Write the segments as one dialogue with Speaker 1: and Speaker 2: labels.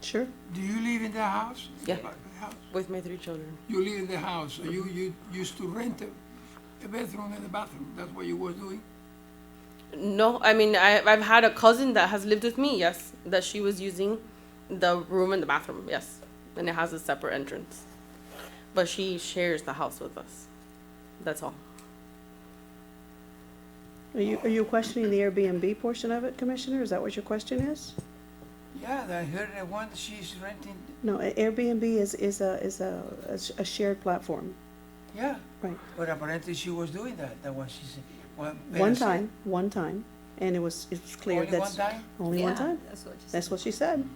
Speaker 1: Sure.
Speaker 2: Do you live in the house?
Speaker 1: Yeah.
Speaker 2: Uh, house?
Speaker 1: With my three children.
Speaker 2: You live in the house, so you, you used to rent a, a bedroom and a bathroom, that's what you was doing?
Speaker 1: No, I mean I I've had a cousin that has lived with me. Yes, that she was using the room and the bathroom. Yes, and it has a separate entrance, but she shares the house with us. That's all.
Speaker 3: Are you, are you questioning the Airbnb portion of it, Commissioner? Is that what your question is?
Speaker 2: Yeah, I heard that one, she's renting,
Speaker 3: No, a- Airbnb is, is a, is a, a s- a shared platform,
Speaker 2: yeah,
Speaker 3: right?
Speaker 2: but apparently she was doing that, that was, she's, one.
Speaker 3: One time, one time, and it was, it was clear
Speaker 2: Only one
Speaker 3: that's.
Speaker 2: time?
Speaker 3: Only one
Speaker 4: Yeah,
Speaker 3: time?
Speaker 4: That's what you said.
Speaker 3: That's what she said.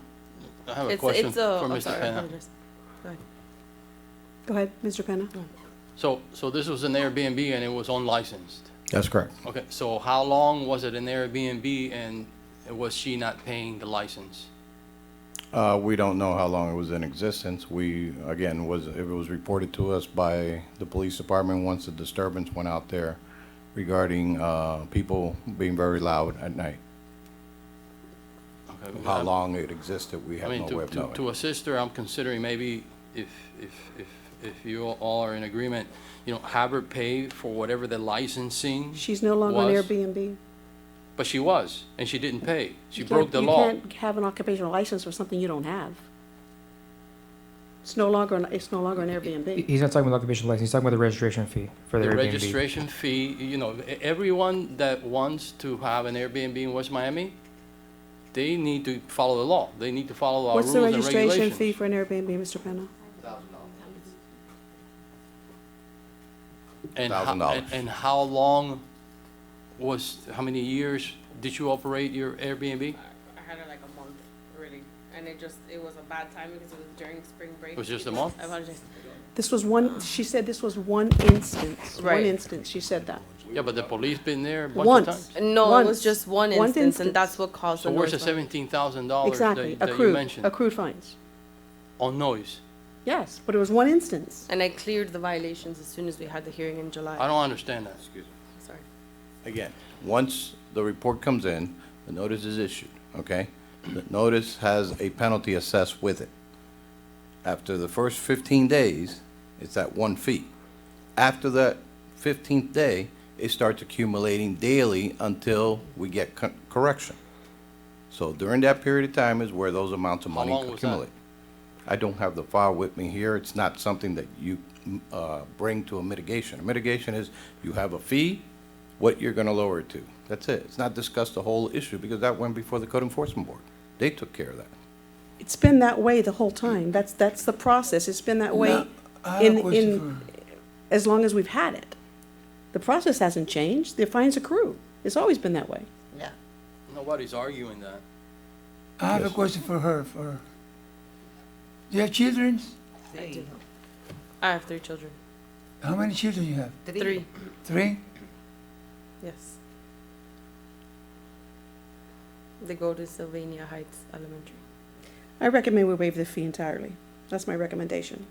Speaker 5: I have a
Speaker 1: it's
Speaker 5: question
Speaker 1: it's
Speaker 5: for
Speaker 1: a. oh,
Speaker 5: Mr.
Speaker 1: sorry, I
Speaker 5: Penna.
Speaker 1: apologize. Go ahead.
Speaker 3: Go ahead, Mr. Penna.
Speaker 2: Oh.
Speaker 5: So, so this was an Airbnb and it was unlicensed?
Speaker 6: That's correct.
Speaker 5: Okay, so how long was it an Airbnb and was she not paying the license?
Speaker 6: Uh, we don't know how long it was in existence. We, again, was, it was reported to us by the police department once the disturbance went out there regarding, uh, people being very loud at night.
Speaker 5: Okay,
Speaker 6: How
Speaker 5: I-
Speaker 6: long it existed, we
Speaker 5: I
Speaker 6: have
Speaker 5: mean,
Speaker 6: no way
Speaker 5: to,
Speaker 6: of
Speaker 5: to, to
Speaker 6: knowing.
Speaker 5: assist her, I'm considering maybe if, if, if, if you all are in agreement, you know, have her pay for whatever the licensing,
Speaker 3: She's no longer on
Speaker 5: Was.
Speaker 3: Airbnb.
Speaker 5: but she was, and she didn't pay. She
Speaker 3: You
Speaker 5: broke
Speaker 3: can't-
Speaker 5: the
Speaker 3: you
Speaker 5: law.
Speaker 3: can't have an occupational license for something you don't have. It's no longer, an- it's no longer an
Speaker 7: He-
Speaker 3: Airbnb.
Speaker 7: He's not talking about occupation license. He's talking about the registration fee for the,
Speaker 5: The
Speaker 7: Airbnb.
Speaker 5: registration fee, you know, e- everyone that wants to have an Airbnb in West Miami, they need to follow the law. They need to follow our
Speaker 3: What's
Speaker 5: rules
Speaker 3: the
Speaker 5: and
Speaker 3: registration
Speaker 5: regulations.
Speaker 3: fee for an Airbnb, Mr. Penna?
Speaker 5: And how-
Speaker 6: $1,000.
Speaker 5: and- And how long was, how many years did you operate your Airbnb?
Speaker 1: I had it like a month really, and it just it was a bad time because it was during spring break.
Speaker 5: It was just a month?
Speaker 1: I apologize.
Speaker 3: This was one, she said this was one instance, one
Speaker 1: Right.
Speaker 3: instance, she said that.
Speaker 5: Yeah, but the police been there a bunch
Speaker 3: Once.
Speaker 5: of times.
Speaker 1: No, it
Speaker 3: Once.
Speaker 1: was just one
Speaker 3: One
Speaker 1: instance,
Speaker 3: instance.
Speaker 1: and that's what caused
Speaker 5: So
Speaker 1: the
Speaker 5: where's the
Speaker 1: noise.
Speaker 5: seventeen thousand dollars that
Speaker 3: Exactly,
Speaker 5: that you
Speaker 3: accrued,
Speaker 5: mentioned?
Speaker 3: accrued fines.
Speaker 5: On noise.
Speaker 3: Yes, but it was one instance.
Speaker 1: And I cleared the violations as soon as we had the hearing in July.
Speaker 5: I don't understand that.
Speaker 1: Sorry.
Speaker 6: Again, once the report comes in, the notice is issued, okay? The notice has a penalty assessed with it. After the first 15 days, it's at one fee. After that 15th day, it starts accumulating daily until we get co- correction. So during that period of time is where those amounts of
Speaker 5: How
Speaker 6: money
Speaker 5: long was that?
Speaker 6: accumulate. I don't have the file with me here. It's not something that you mm, uh, bring to a mitigation. A mitigation is you have a fee, what you're going to lower it to. That's it. It's not discussed the whole issue because that went before the code enforcement board. They took care of that.
Speaker 3: It's been that way the whole time. That's, that's the process. It's been that way
Speaker 2: Now, I have a
Speaker 3: in,
Speaker 2: question
Speaker 3: in, as long as we've had it. The process hasn't changed. The fines accrue. It's always been that way.
Speaker 5: Nobody's arguing that.
Speaker 2: I have a question for her, for her. Do you have children?
Speaker 4: Three.
Speaker 1: I have three children.
Speaker 2: How many children you have?
Speaker 1: Three.
Speaker 2: Three?
Speaker 1: Yes. They go to Sylvania Heights Elementary.
Speaker 3: I recommend we waive the fee entirely. That's my recommendation.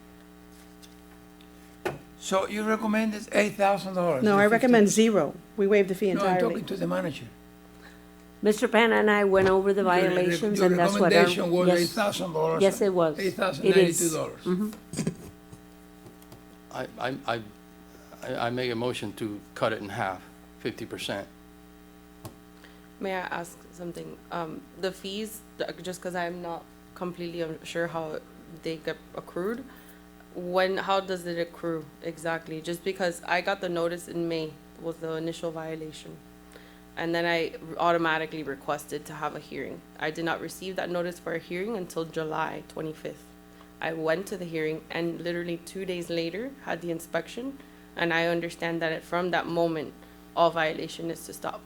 Speaker 2: So you recommended eight thousand dollars?
Speaker 3: No, I recommend zero. We waive the fee
Speaker 2: No, I'm talking
Speaker 3: entirely.
Speaker 2: to the manager.
Speaker 8: Mr. Penn and I went over the
Speaker 2: Your re-
Speaker 8: violations, and that's what
Speaker 2: Your
Speaker 8: our,
Speaker 2: recommendation was eight
Speaker 8: yes,
Speaker 2: thousand dollars.
Speaker 8: yes, it was.
Speaker 2: Eight thousand
Speaker 8: It
Speaker 2: ninety-two
Speaker 8: is.
Speaker 2: dollars.
Speaker 5: I, I, I, I- I make a motion to cut it in half, fifty percent.
Speaker 1: May I ask something? Um, the fees, th- just because I'm not completely un- sure how they get accrued, when, how does it accrue exactly? Just because I got the notice in May was the initial violation. And then I automatically requested to have a hearing. I did not receive that notice for a hearing until July 25th. I went to the hearing and literally two days later had the inspection. And I understand that from that moment, all violation is to stop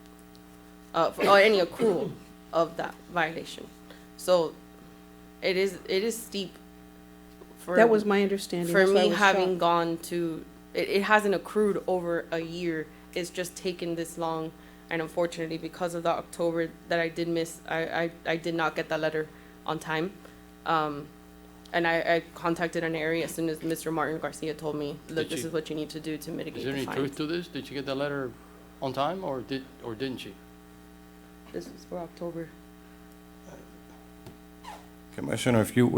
Speaker 1: uh, for- or any accrual of that violation. So it is, it is steep for.
Speaker 3: That was my understanding.
Speaker 1: For
Speaker 3: That's why I
Speaker 1: me,
Speaker 3: was
Speaker 1: having
Speaker 3: shocked.
Speaker 1: gone to, it, it hasn't accrued over a year. It's just taken this long. And unfortunately, because of the October that I did miss, I, I, I did not get that letter on time. Um, and I, I contacted an area as soon as Mr. Martin Garcia told me, look,
Speaker 5: Did
Speaker 1: this
Speaker 5: you-
Speaker 1: is what you need to do to mitigate
Speaker 5: Is there
Speaker 1: the
Speaker 5: any truth
Speaker 1: fines.
Speaker 5: to this? Did you get the letter on time or did, or didn't she?
Speaker 1: This was for October.
Speaker 6: Commissioner, if you